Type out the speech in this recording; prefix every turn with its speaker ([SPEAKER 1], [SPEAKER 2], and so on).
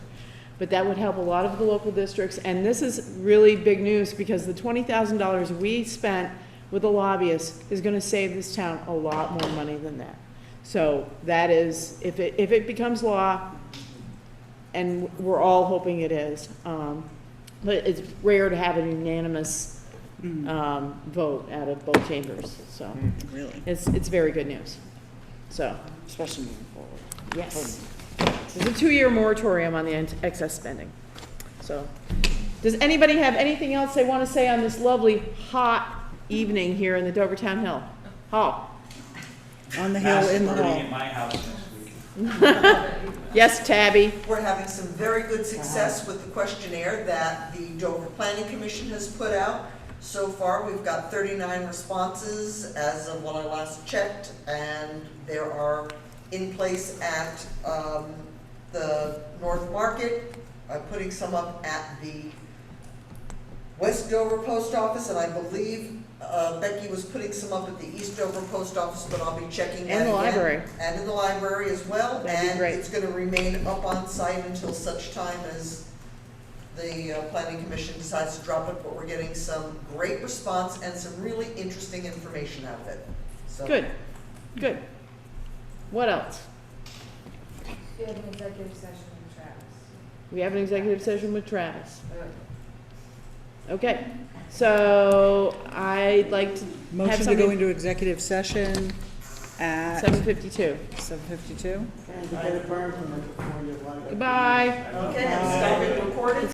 [SPEAKER 1] But that would help a lot of the local districts, and this is really big news, because the twenty thousand dollars we spent with the lobbyists is gonna save this town a lot more money than that. So that is, if it, if it becomes law, and we're all hoping it is, um, but it's rare to have a unanimous, um, vote out of both chambers, so.
[SPEAKER 2] Mm. Really,
[SPEAKER 1] It's, it's very good news. So,
[SPEAKER 2] especially moving forward.
[SPEAKER 1] yes. There's a two-year moratorium on the ent- excess spending. So, does anybody have anything else they want to say on this lovely, hot evening here in the Dovertown Hill? Hall?
[SPEAKER 2] On the hill in the
[SPEAKER 3] Mass murdering
[SPEAKER 2] hall.
[SPEAKER 3] at my house next week.
[SPEAKER 1] Yes, Tabby?
[SPEAKER 4] We're having some very
[SPEAKER 1] Uh-huh.
[SPEAKER 4] good success with the questionnaire that the Dover Planning Commission has put out. So far, we've got 39 responses as of when I last checked, and there are in place at um, the North Market. I'm putting some up at the West Dover Post Office, and I believe uh, Becky was putting some up at the East Dover Post Office, but I'll be checking that
[SPEAKER 1] And the
[SPEAKER 4] again.
[SPEAKER 1] library.
[SPEAKER 4] And in the library as well,
[SPEAKER 1] That'd be
[SPEAKER 4] and
[SPEAKER 1] great.
[SPEAKER 4] it's gonna remain up on site until such time as the uh, planning commission decides to drop it, but we're getting some great response and some really interesting information out of it, so.
[SPEAKER 1] Good, good. What else?
[SPEAKER 5] We had an executive session with Travis.
[SPEAKER 1] We have an executive session with Travis. Okay, so I'd like to have
[SPEAKER 2] Motion to go
[SPEAKER 1] something,
[SPEAKER 2] into executive session at
[SPEAKER 1] seven fifty-two.
[SPEAKER 2] seven fifty-two?
[SPEAKER 1] Goodbye.
[SPEAKER 4] Okay, and stop it recording.